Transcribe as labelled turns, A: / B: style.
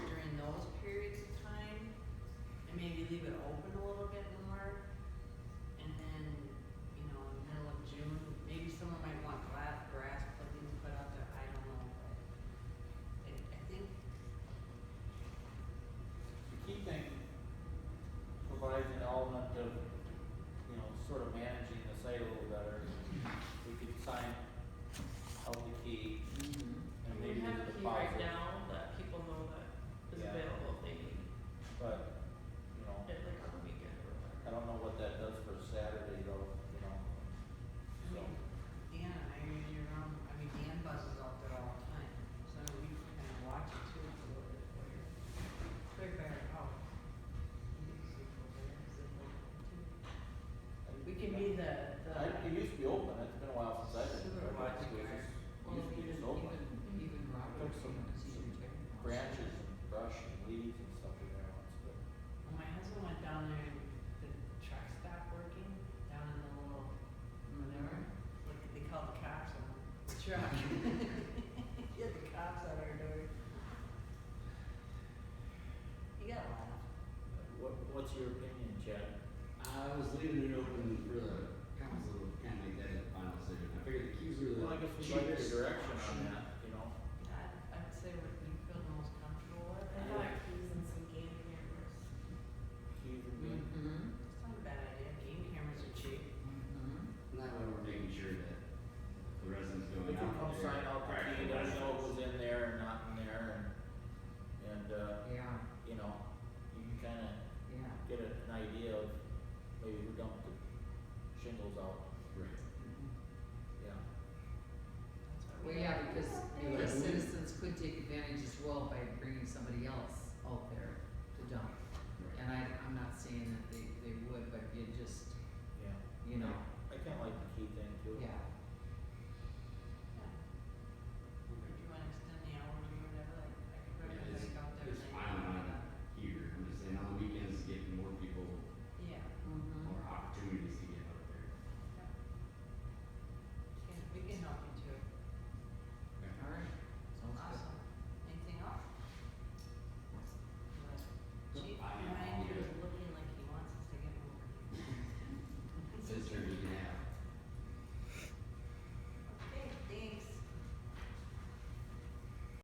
A: Mm-hmm.
B: uh,
A: Mm-hmm. Mm-hmm.
B: uh, you know, you can kinda
A: Oh, yeah.
B: get a- an idea of maybe who dumped the shingles out,
C: Right.
B: yeah.
A: Mm-hmm. Well, yeah, because
D: Yeah,
A: the
D: thanks.
A: citizens could take advantage as well by bringing somebody else